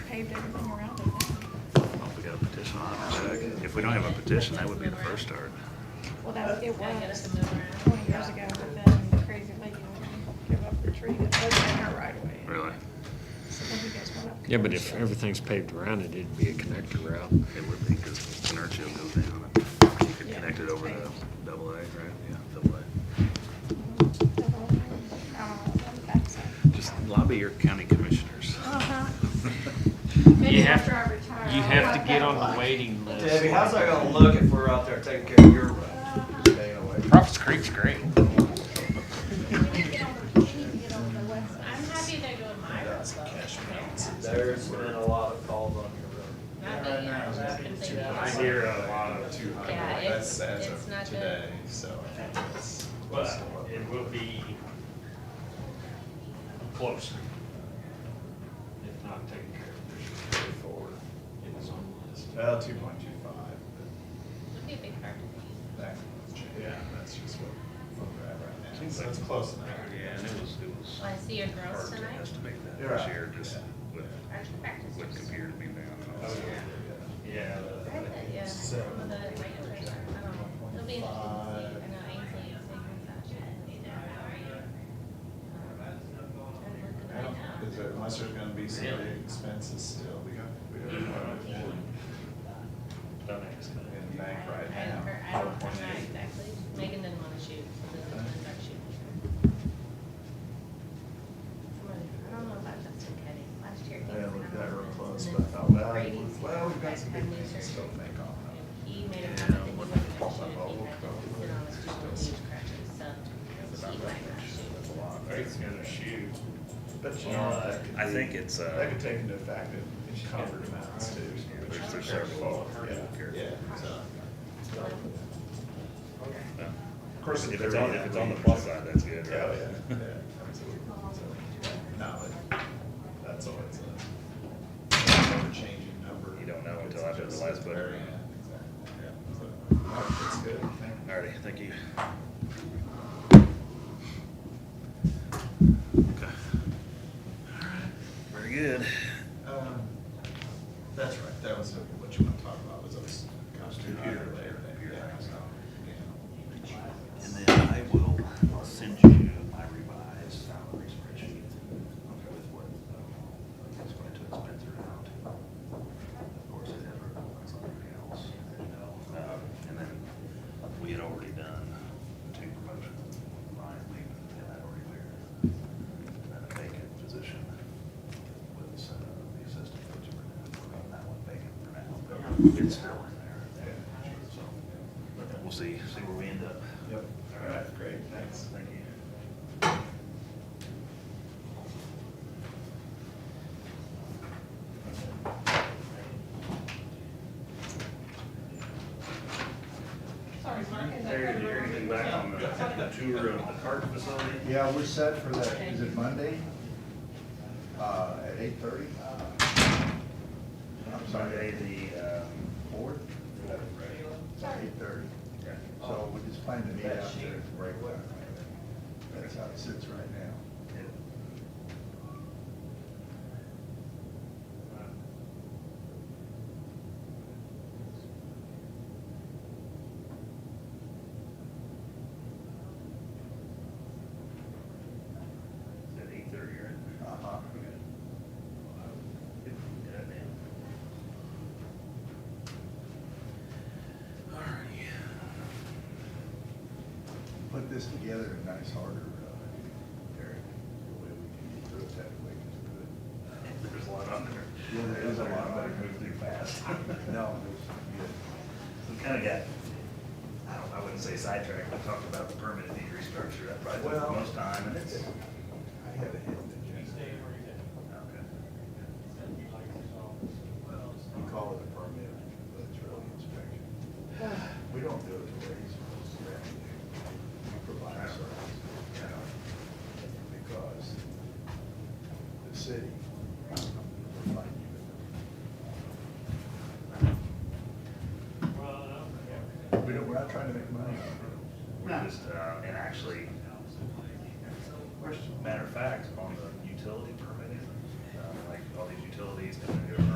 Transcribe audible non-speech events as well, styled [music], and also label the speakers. Speaker 1: paved everything around it now.
Speaker 2: Well, we got a petition on it, so if we don't have a petition, that would be the first start.
Speaker 1: Well, that, it
Speaker 3: I guess
Speaker 1: was
Speaker 3: it's over.
Speaker 1: twenty years ago, but then the crazy lady wouldn't give up her tree that was in her right away.
Speaker 2: Really?
Speaker 1: So then you guys went up.
Speaker 4: Yeah, but if everything's paved around it, it'd be a connector route.
Speaker 2: It would be, because inertia goes down, and you could
Speaker 1: Yeah.
Speaker 2: connect it over to double A, right? Yeah, double A.
Speaker 1: Double, uh, on the backside.
Speaker 2: Just lobby your county commissioners.
Speaker 1: Uh-huh.
Speaker 5: Maybe
Speaker 6: You have,
Speaker 5: after I retire,
Speaker 6: you
Speaker 5: I'll
Speaker 6: have
Speaker 5: walk
Speaker 6: to get
Speaker 5: that
Speaker 6: on
Speaker 5: block.
Speaker 6: the waiting list.
Speaker 7: Debbie, how's that gonna look if we're out there taking care of your road? Staying away.
Speaker 6: Prophet's Creek's great.
Speaker 3: I'm happy they're doing my roads though.
Speaker 7: There's been a lot of calls on your
Speaker 3: Not that, you know, I've been thinking.
Speaker 8: I hear a lot of two hundred.
Speaker 3: Yeah,
Speaker 8: That's
Speaker 3: it's-
Speaker 8: as
Speaker 3: it's not
Speaker 8: of
Speaker 3: good.
Speaker 8: today, so I think it's.
Speaker 6: But it will be closer. If not taken care of, there's a way forward in the zone list.
Speaker 8: road. Well, two point two five,
Speaker 3: It'd be a big part of
Speaker 8: but that can change. Yeah, that's just what we're at right now. So it's close enough.
Speaker 2: Yeah, and it was, it was
Speaker 3: me. I see your
Speaker 2: hard
Speaker 3: girls
Speaker 2: to
Speaker 3: tonight.
Speaker 2: estimate that
Speaker 8: You're
Speaker 2: this
Speaker 8: right.
Speaker 2: year, just with,
Speaker 3: Aren't you practicing?
Speaker 2: with computer being down and all
Speaker 6: Oh,
Speaker 2: that.
Speaker 6: Yeah,
Speaker 3: I bet, yeah. Well, the regulars are- I don't know. It'll be interesting to see. I know Ainsley is taking that shit. He's there now, right? I'm looking right now.
Speaker 8: Is there- Unless there's gonna be some big expenses still, we got, we don't know what we're doing
Speaker 6: don't ask.
Speaker 8: in the bank
Speaker 3: I
Speaker 8: right now.
Speaker 3: don't, I don't, I'm not
Speaker 8: 4.8.
Speaker 3: exactly, Megan didn't wanna shoot, so this is gonna start shooting. I don't know about Justin Kenny, last year. he
Speaker 8: I
Speaker 3: was
Speaker 8: looked at
Speaker 3: kind
Speaker 8: that
Speaker 3: of
Speaker 8: real
Speaker 3: on
Speaker 8: close,
Speaker 3: the
Speaker 8: but I thought, well,
Speaker 3: Brady's
Speaker 8: well, we've got some
Speaker 3: back
Speaker 8: big
Speaker 3: had knee
Speaker 8: things still to
Speaker 3: surgery.
Speaker 8: make off.
Speaker 3: And He made a
Speaker 8: Yeah,
Speaker 3: comment that he
Speaker 8: what-
Speaker 3: wasn't gonna
Speaker 8: what
Speaker 3: shoot,
Speaker 8: about
Speaker 3: he
Speaker 8: what
Speaker 3: had
Speaker 8: about-
Speaker 3: been on his two crutches, so
Speaker 8: That's
Speaker 3: he
Speaker 8: about
Speaker 3: might
Speaker 8: right.
Speaker 3: not
Speaker 8: That's
Speaker 3: shoot.
Speaker 8: a lot.
Speaker 6: Craig's gonna shoot.
Speaker 8: But you know, that could
Speaker 2: I
Speaker 8: be-
Speaker 2: think it's, uh,
Speaker 8: That could take into effect that covered amounts too.
Speaker 2: There's- there's several.
Speaker 8: Yeah, yeah, so.
Speaker 2: Yeah.
Speaker 8: Of course,
Speaker 2: If
Speaker 8: they're
Speaker 2: it's on,
Speaker 8: in
Speaker 2: if
Speaker 8: that
Speaker 2: it's on the
Speaker 8: range.
Speaker 2: plus side, that's good,
Speaker 8: Yeah,
Speaker 7: Oh,
Speaker 2: right?
Speaker 8: yeah, yeah.
Speaker 2: [laughs]
Speaker 8: So, No, but that's all it's a, never changing number.
Speaker 2: You don't know until after the last
Speaker 8: Exactly,
Speaker 2: budget.
Speaker 8: yeah. So, no, That's good, thank you.
Speaker 2: Alrighty, thank you. Okay. Alright, Very good.
Speaker 8: Um, That's right, that was what you want to talk about, was those computer later. yeah, so, yeah.
Speaker 2: And then I will send you my revised salary spreadsheet with what, uh, that's what I took Spencer out. Of course, it has requirements on everything else, as you know. Um, And then we had already done two promotions, Ryan leaving, and that already cleared. And a vacant position was uh, the assistant coach for now, we're on that one vacant for now, but it's still in there. So we'll see, see where we end up.
Speaker 8: Yep, all right, great, thanks.
Speaker 2: Thank you.
Speaker 5: Sorry, Mark, is that
Speaker 6: Terry,
Speaker 5: correct?
Speaker 6: did you hear anything back on the tour of the cart facility?
Speaker 7: Yeah, we're set for that, is it Monday? Uh, at eight thirty? I'm sorry,
Speaker 2: Monday, the, um,
Speaker 7: four?
Speaker 5: Sorry.
Speaker 7: Eight thirty. So we just plan to meet out there at the break. That's how it sits right now.
Speaker 2: at eight thirty, right?
Speaker 7: Uh-huh. Put this together in nice order, uh, Eric, the way we can get through it that way. 'cause we're-
Speaker 2: There's a lot on there.
Speaker 7: Yeah, there is a lot.
Speaker 2: Everybody moved through fast.
Speaker 7: No, it's
Speaker 2: We kind of got, I don't, I wouldn't say sidetracked, we talked about the permit need restructure, that probably took the
Speaker 7: Well-
Speaker 2: most time, and it's.
Speaker 7: good. I had a hidden
Speaker 2: Okay.
Speaker 7: agenda. You call it a permit, but it's really inspection. We don't do it the way it's supposed to. We provide service, you know, because the city provide you. We don't, we're not trying to make money.
Speaker 2: We're just, uh, and actually, matter of fact, on the utility permit, uh, like all these utilities, and then